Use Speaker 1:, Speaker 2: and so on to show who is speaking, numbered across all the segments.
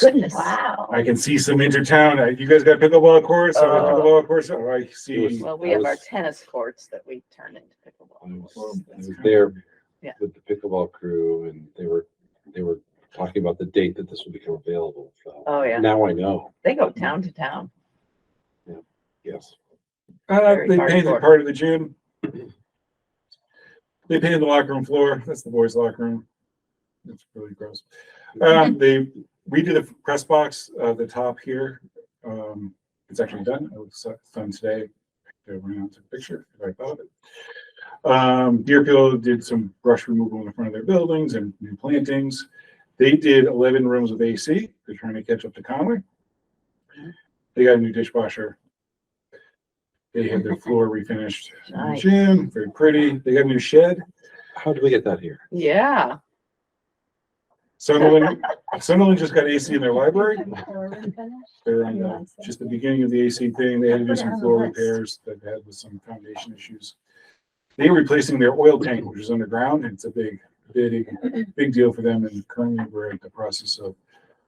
Speaker 1: Goodness.
Speaker 2: Wow.
Speaker 3: I can see some intertown. Uh, You guys got pickleball courts, I
Speaker 2: Uh,
Speaker 3: pickleball courts, Oh, I see.
Speaker 2: Well, we have our tennis courts that we turn into
Speaker 4: I
Speaker 2: pickleball.
Speaker 4: was-
Speaker 2: courts.
Speaker 4: I
Speaker 2: That's
Speaker 4: was
Speaker 2: kind
Speaker 4: there
Speaker 2: Yeah.
Speaker 4: with the pickleball crew and they were, they were talking about the date that this would become available. so
Speaker 2: of- Oh, yeah.
Speaker 4: Now I know,
Speaker 2: They go town to town.
Speaker 4: yes.
Speaker 3: Uh,
Speaker 2: very
Speaker 3: they
Speaker 2: hard
Speaker 3: painted
Speaker 2: court.
Speaker 3: part of the gym. They painted the locker room floor. That's the boys' locker room. It's really gross. Um, they, we did a press box, uh, the top here. Um, it's actually done. It was done today. I ran out to a picture if I thought of it. Um, Deerfield did some brush removal in the front of their buildings and new plantings. They did eleven rooms with AC. They're trying to catch up to Conway.
Speaker 2: Mm-hmm.
Speaker 3: They got a new dishwasher. They had their floor refinished. in the
Speaker 2: Nice.
Speaker 3: Gym, very pretty. They got a new shed.
Speaker 4: How did we get that here?
Speaker 2: Yeah.
Speaker 3: Sunderland, Sunderland just got AC in their library. They're on
Speaker 1: Yeah.
Speaker 3: the, just the beginning of the AC thing. They had to do
Speaker 1: Put it
Speaker 3: some
Speaker 1: on the
Speaker 3: floor
Speaker 1: list.
Speaker 3: repairs that they had with some foundation issues. They were replacing their oil tank, which is underground, and it's a big, big, big deal for them, and currently we're in the process of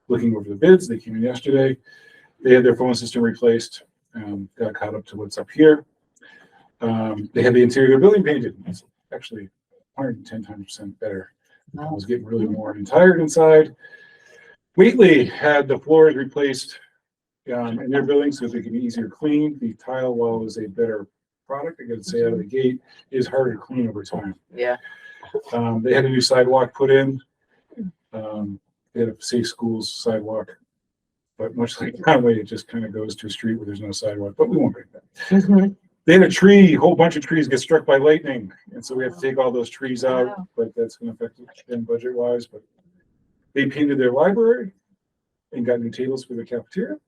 Speaker 3: looking over the bids. They came in yesterday. They had their phone system replaced, um, got caught up to what's up here. Um, they had the interior of their building painted. It's actually hundred and ten percent better. I was getting really worn and tired inside. Wheatley had the floors replaced um, in their building so they could be easier cleaned. The tile wall is a better product, I gotta say, out of the gate, It is harder to clean over time.
Speaker 2: Yeah.
Speaker 3: Um, they had a new sidewalk put in. Um, they had a safe schools sidewalk. But much like Conway, it just kind of goes to a street where there's no sidewalk, but we won't break that. They had a tree, a whole bunch of trees get struck by lightning, and so we have to take all those trees out,
Speaker 2: Wow.
Speaker 3: but that's gonna affect them budget wise, but. They painted their library and got new tables for the cafeteria.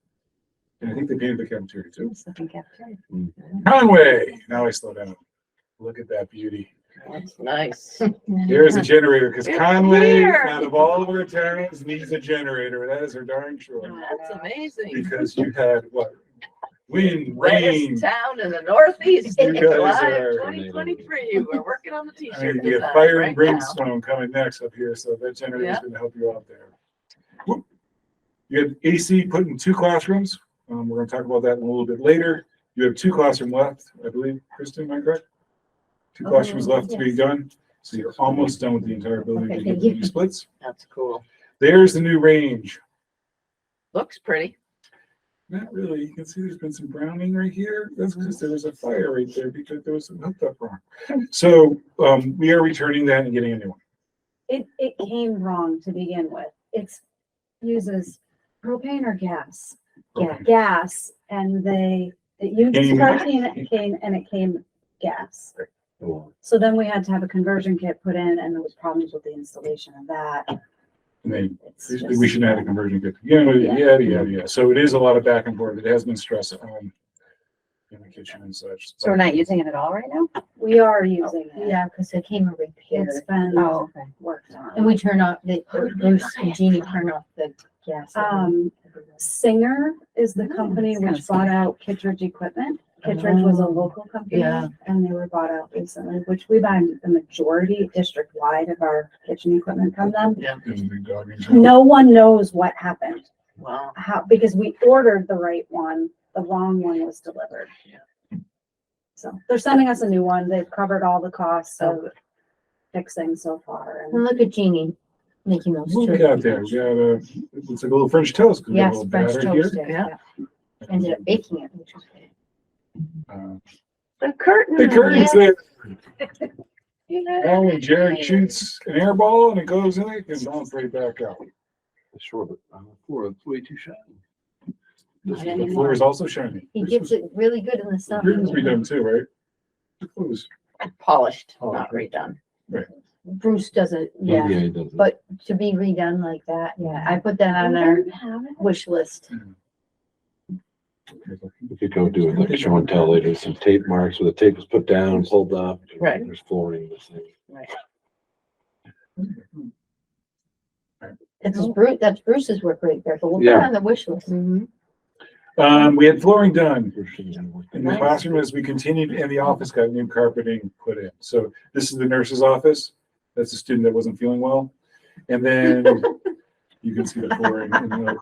Speaker 3: And I think they painted the cafeteria too. Conway, now I slow down. Look at that beauty.
Speaker 2: That's nice.
Speaker 3: Here's a generator, because
Speaker 2: It's
Speaker 3: Conway,
Speaker 2: here.
Speaker 3: out of all of our towns, needs a generator. That is her darn sure.
Speaker 2: That's amazing.
Speaker 3: Because you had what? Wind, rain.
Speaker 2: Wettest town in the northeast in
Speaker 3: You guys
Speaker 2: July
Speaker 3: are-
Speaker 2: of twenty twenty-three. We're working on the
Speaker 3: I mean,
Speaker 2: t-shirt
Speaker 3: you
Speaker 2: design
Speaker 3: got fire and
Speaker 2: right now.
Speaker 3: brimstone coming next up here, so that generator's
Speaker 2: Yeah.
Speaker 3: gonna help you out there. Whoop. You had AC put in two classrooms. Um, we're gonna talk about that in a little bit later. You have two classroom left, I believe, Kristen, am I correct? Two
Speaker 1: Oh,
Speaker 3: classrooms left to be
Speaker 1: yes.
Speaker 3: done, so you're almost done with the entire building.
Speaker 1: Okay,
Speaker 3: You
Speaker 1: thank
Speaker 3: can
Speaker 1: you.
Speaker 3: do Splits.
Speaker 2: That's cool.
Speaker 3: There's the new range.
Speaker 2: Looks pretty.
Speaker 3: Not really. You can see there's been some browning right here. That's because there was a fire right there because there was some hooked up wrong. So, um, we are returning that and getting a new one.
Speaker 1: It, it came wrong to begin with. It's uses propane or gas? Yeah, gas, and they, it uses
Speaker 3: Came-
Speaker 1: propane, and it came, and it came gas.
Speaker 4: Well,
Speaker 1: So then we had to have a conversion kit put in, and there was problems with the installation of that.
Speaker 3: And they
Speaker 1: It's
Speaker 3: We
Speaker 1: just-
Speaker 3: should add a conversion kit, you know,
Speaker 1: Yeah.
Speaker 3: yada, yada, yada. So it is a lot of back and forth. It has been stressed on in the kitchen and such.
Speaker 5: So we're not using it at all right now?
Speaker 1: We are using it.
Speaker 5: Yeah, because it came a
Speaker 1: It's
Speaker 5: repair.
Speaker 1: been
Speaker 5: Oh, okay.
Speaker 1: worked
Speaker 5: And
Speaker 1: on.
Speaker 5: we turn off the, there's Jeannie turn off the gas.
Speaker 1: Um, Singer is the
Speaker 5: Mm,
Speaker 1: company
Speaker 5: it's kinda
Speaker 1: which bought
Speaker 5: similar.
Speaker 1: out Kittredge Equipment. Kittredge was a
Speaker 5: Oh,
Speaker 1: local company
Speaker 2: Yeah.
Speaker 1: and they were bought out recently, which we buy the majority district wide of our kitchen equipment from them.
Speaker 3: There's a big dog in there.
Speaker 1: No one knows what happened,
Speaker 2: Wow.
Speaker 1: how, because we ordered the right one, the wrong one was delivered.
Speaker 2: Yeah.
Speaker 1: So they're sending us a new one. They've covered all the costs
Speaker 5: Oh,
Speaker 1: of fixing so far.
Speaker 5: And
Speaker 1: and-
Speaker 5: look at Jeannie making those.
Speaker 3: What we got there? We got a, it's like a little French toast. 'cause we have a
Speaker 5: Yes,
Speaker 3: little
Speaker 5: French
Speaker 3: batter
Speaker 5: toast.
Speaker 3: here.
Speaker 2: Yeah.
Speaker 5: Yeah. Ended up baking it, which was good.
Speaker 3: Uh,
Speaker 2: The curtain.
Speaker 3: The curtains there,
Speaker 2: Yeah.
Speaker 3: Alan and Jared shoots an air ball and it goes in it and bounces right back out.
Speaker 4: Sure, but on the uh, floor, it's way too shiny.
Speaker 5: Not
Speaker 3: The
Speaker 5: anymore.
Speaker 3: floor is also shiny.
Speaker 5: He gets it really good in the
Speaker 3: Yours must be
Speaker 5: summer.
Speaker 3: done too, right? It was-
Speaker 2: Polished, not redone.
Speaker 5: Bruce does it, yeah.
Speaker 4: Oh, Yeah, it does.
Speaker 5: But- To be redone like that, yeah. I put that on our wish list.
Speaker 4: We could go do it like show and tell later, some tape marks where the tape was put down, pulled up.
Speaker 2: Right.
Speaker 4: There's flooring, this thing.
Speaker 5: That's Bruce, that's Bruce's work right there, but we'll put it
Speaker 4: Yeah.
Speaker 5: on the wish list.
Speaker 3: Mm-hmm. Um, we had flooring done.
Speaker 4: We're shooting and
Speaker 3: In
Speaker 4: working.
Speaker 3: the
Speaker 5: Nice.
Speaker 3: classroom, as we continued, and the office got new carpeting put in. So this is the nurse's office. That's a student that wasn't feeling well. And then you can see the flooring in the